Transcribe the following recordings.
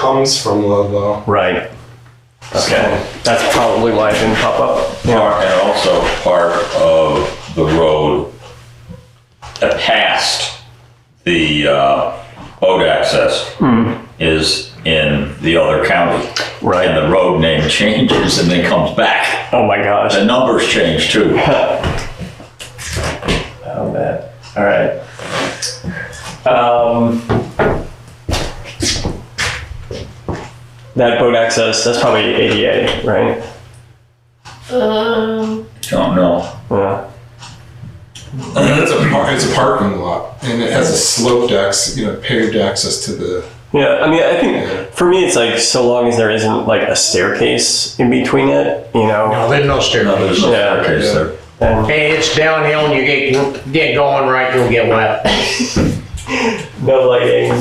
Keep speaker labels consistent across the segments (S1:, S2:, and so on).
S1: comes from Ludlow.
S2: Right. Okay, that's probably why it didn't pop up.
S3: Part, and also part of the road that past the, uh, boat access
S2: Hmm.
S3: is in the other county.
S2: Right.
S3: And the road name changes and then comes back.
S2: Oh my gosh.
S3: The numbers change too.
S2: Oh man. All right. Um, that boat access, that's probably ADA, right?
S4: Um,
S3: Don't know.
S2: Yeah.
S1: I mean, it's a par- it's a parking lot, and it has a sloped access, you know, paved access to the.
S2: Yeah, I mean, I think for me, it's like so long as there isn't like a staircase in between it, you know,
S5: No, there's no
S3: No,
S5: staircase.
S3: there's no
S2: Yeah.
S3: staircase there.
S2: then
S5: Hey, it's downhill and you get, get going right, you'll get wet.
S2: no lighting,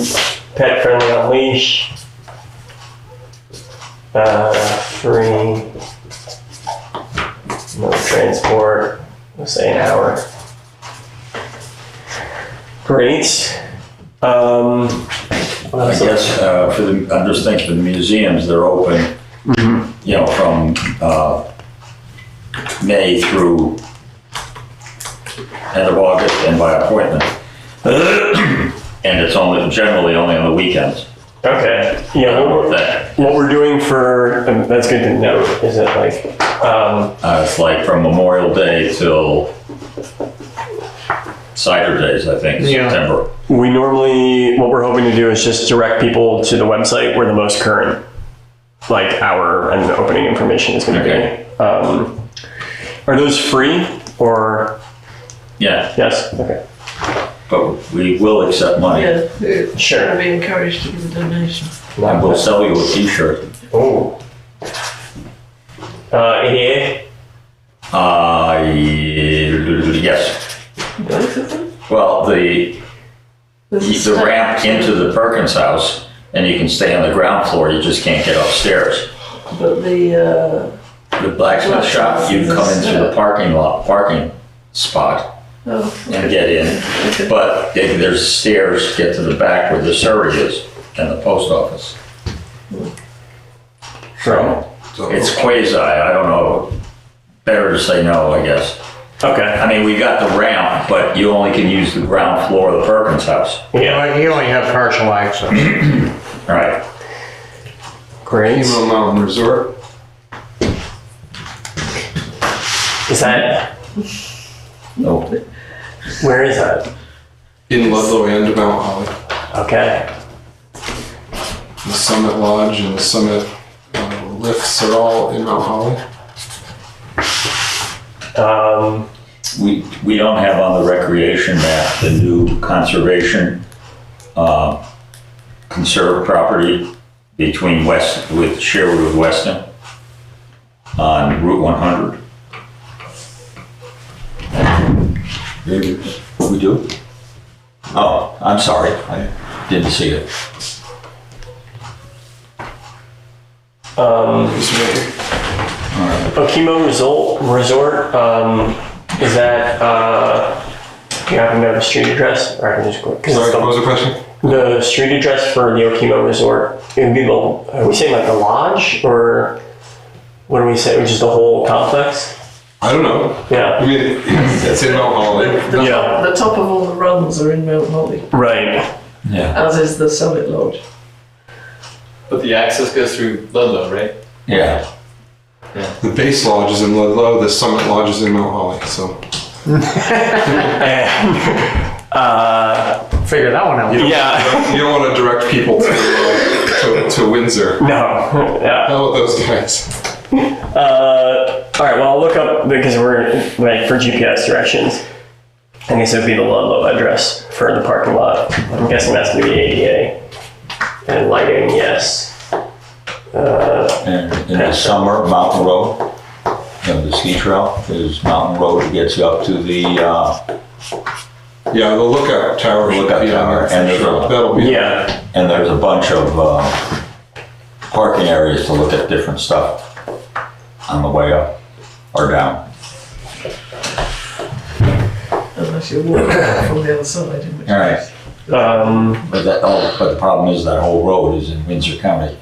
S2: pet friendly on leash, uh, free, no transport, let's say an hour. Great. Um,
S3: I guess, uh, for the, I'm just thinking for the museums, they're open, you know, from, uh, May through end of August and by appointment. And it's only, generally only on the weekends.
S2: okay. Yeah, what
S3: With
S2: we're,
S3: that,
S2: what we're doing for, and that's good to note, is it like, um,
S3: uh, it's like from Memorial Day till cider days, I think,
S5: Yeah.
S3: September.
S2: We normally, what we're hoping to do is just direct people to the website where the most current, like hour and opening information is going to
S3: Okay.
S2: be. Um, are those free or
S3: Yeah,
S2: yes? Okay,
S3: but we will accept money.
S4: yeah, they're
S2: sure.
S4: gonna be encouraged to give a donation.
S3: And we'll sell you a t-shirt.
S2: Oh. Uh, ADA.
S3: Uh, yes.
S4: Both of them?
S3: Well, the, the ramp into the Perkins house, and you can stay on the ground floor, you just can't get upstairs.
S4: But the, uh,
S3: The blacksmith shop, you come in through the parking lot, parking spot
S4: oh,
S3: and get in.
S4: okay.
S3: But if there's stairs, get to the back where the surrey is and the post office. So
S1: So
S3: it's quasi, I don't know, better to say no, I guess.
S2: Okay.
S3: I mean, we got the ramp, but you only can use the ground floor of the Perkins house.
S2: Yeah.
S5: But You only have partial access.
S3: Right.
S2: Great.
S1: Emo Mountain Resort.
S2: Is that
S3: No.
S2: where is that?
S1: In Ludlow and Mount Holly,
S2: Okay.
S1: the Summit Lodge and the Summit uh, lifts are all in Mount Holly.
S2: Um,
S3: We, we don't have on the recreation map the new conservation, uh, conserved property between West, with Sherwood with Weston on Route 100. We do? Oh, I'm sorry, I didn't see it.
S2: um,
S1: Just wait.
S2: Okemo Resort oh, Resort. Um, is that uh, do you happen to have a street address, or I can just go because
S1: Sorry,
S2: it's
S1: what was the
S2: the,
S1: question?
S2: the street address for the Okemo Resort. It would be the are we saying like the lodge or what do we say? Which is the whole complex?
S1: I don't know. I
S2: Yeah.
S1: mean, it's in Mount Holly.
S4: The
S2: Yeah.
S4: top, the top of all the runs are in Mount Holly,
S2: Right.
S3: Yeah.
S4: as is the Summit Lodge.
S6: But the access goes through Ludlow, right?
S3: Yeah,
S1: The base lodge is in Ludlow. The Summit Lodge is in Mount Holly. So
S2: Eh, uh,
S5: Figure that one out.
S2: yeah.
S1: you don't want to direct people to uh, to, to Windsor.
S2: no. Yeah.
S1: How about those guys?
S2: Uh, all right. Well, I'll look up because we're like for GPS directions. I guess it would be the Ludlow address for the parking lot. I'm guessing that's gonna be ADA. And lighting, yes.
S3: and in the summer, Mountain Road, you know, the ski trail is Mountain Road that gets you up to the, uh,
S1: Yeah, the lookout tower. should
S3: Lookout
S1: be on
S3: tower,
S1: there for
S3: and there's
S1: sure.
S3: a-
S1: that'll be
S2: Yeah.
S3: and there's a bunch of uh, parking areas to look at different stuff on the way up or down.
S4: Unless you walk from the other side, in which
S3: All right.
S4: case.
S2: Um,
S3: But that, oh, but the problem is that whole road is in Windsor County.